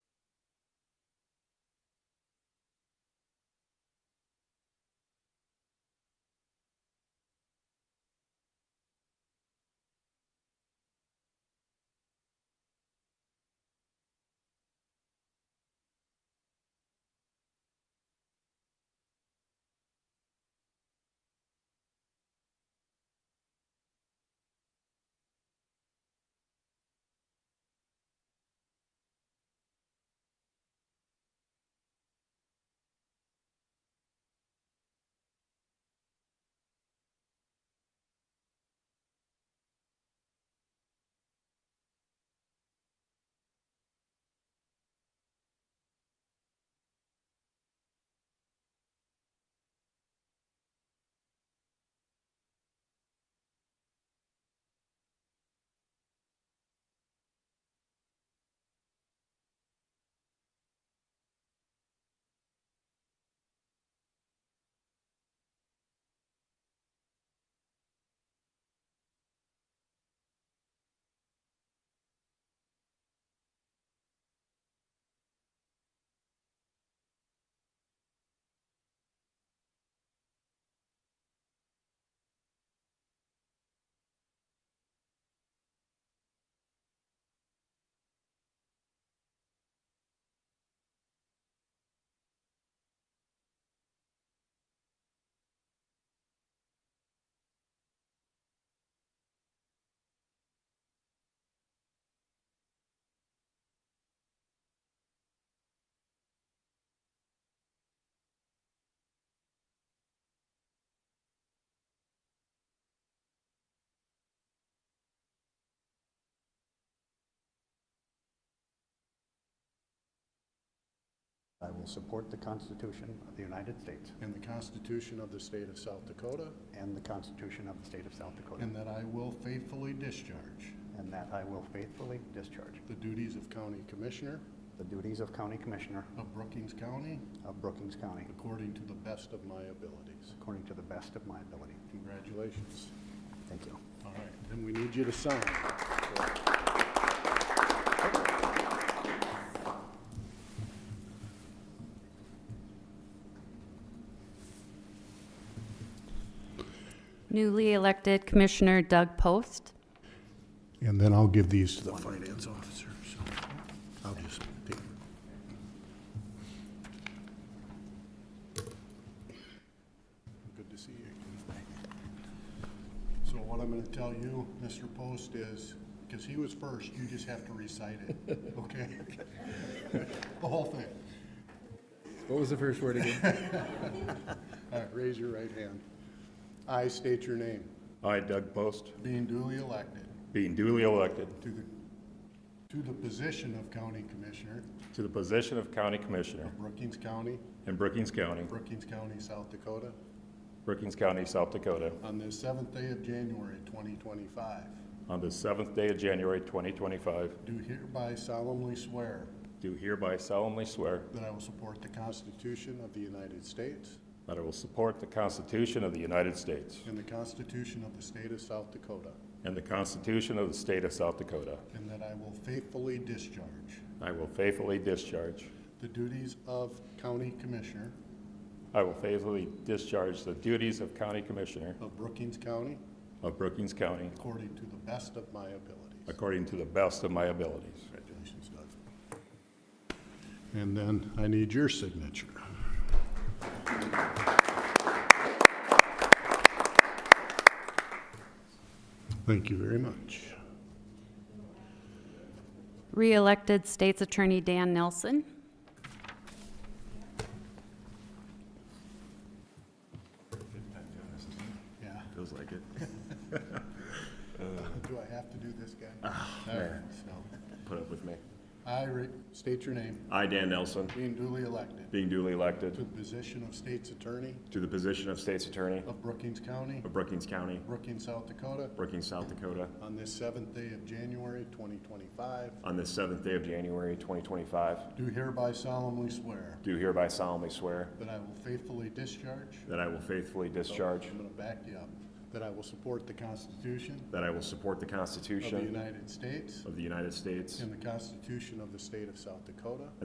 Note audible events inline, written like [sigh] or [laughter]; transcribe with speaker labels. Speaker 1: will support the Constitution of the United States
Speaker 2: and the Constitution of the State of South Dakota,
Speaker 1: and the Constitution of the State of South Dakota,
Speaker 2: and that I will faithfully discharge
Speaker 1: and that I will faithfully discharge
Speaker 2: the duties of County Commissioner
Speaker 1: the duties of County Commissioner
Speaker 2: of Brookings County
Speaker 1: of Brookings County
Speaker 2: according to the best of my abilities.
Speaker 1: according to the best of my ability.
Speaker 2: Congratulations.
Speaker 1: Thank you.
Speaker 2: All right, then we need you to sign.
Speaker 3: Newly elected Commissioner Doug Post.
Speaker 2: And then I'll give these to the finance officer, so I'll just take it. Good to see you. So what I'm gonna tell you, Mr. Post, is, because he was first, you just have to recite it, [laughs] okay? The whole thing.
Speaker 4: What was the first word again?
Speaker 2: All right, raise your right hand. I state your name,
Speaker 5: I, Doug Post,
Speaker 2: being duly elected
Speaker 5: being duly elected
Speaker 2: to the, to the position of County Commissioner
Speaker 5: to the position of County Commissioner
Speaker 2: of Brookings County,
Speaker 5: in Brookings County,
Speaker 2: Brookings County, South Dakota,
Speaker 5: Brookings County, South Dakota,
Speaker 2: on the seventh day of January, 2025,
Speaker 5: on the seventh day of January 2025,
Speaker 2: do hereby solemnly swear
Speaker 5: do hereby solemnly swear
Speaker 2: that I will support the Constitution of the United States
Speaker 5: that I will support the Constitution of the United States
Speaker 2: and the Constitution of the State of South Dakota,
Speaker 5: and the Constitution of the State of South Dakota.
Speaker 2: and that I will faithfully discharge
Speaker 5: I will faithfully discharge,
Speaker 2: the duties of County Commissioner
Speaker 5: I will faithfully discharge the duties of County Commissioner
Speaker 2: of Brookings County
Speaker 5: of Brookings County
Speaker 2: according to the best of my abilities.
Speaker 5: according to the best of my abilities.
Speaker 2: Congratulations, Doug. And then I need your signature. Thank you very much.
Speaker 3: Re-elected State's Attorney Dan Nelson.
Speaker 2: Yeah.
Speaker 5: Feels like it.
Speaker 2: Do I have to do this, guy? All right, so,
Speaker 5: Put up with me.
Speaker 2: I re- state your name,
Speaker 5: I, Dan Nelson,
Speaker 2: being duly elected
Speaker 5: being duly elected
Speaker 2: to the position of State's Attorney
Speaker 5: To the position of State's Attorney
Speaker 2: of Brookings County,
Speaker 5: of Brookings County,
Speaker 2: Brookings, South Dakota,
Speaker 5: Brookings, South Dakota,
Speaker 2: on this seventh day of January, 2025,
Speaker 5: on the seventh day of January, 2025,
Speaker 2: do hereby solemnly swear
Speaker 5: do hereby solemnly swear
Speaker 2: that I will faithfully discharge
Speaker 5: that I will faithfully discharge,
Speaker 2: I'm going to back you up, that I will support the Constitution
Speaker 5: that I will support the
Speaker 2: of the
Speaker 5: Constitution
Speaker 2: United States
Speaker 5: of the United States
Speaker 2: and the Constitution of the State of South Dakota,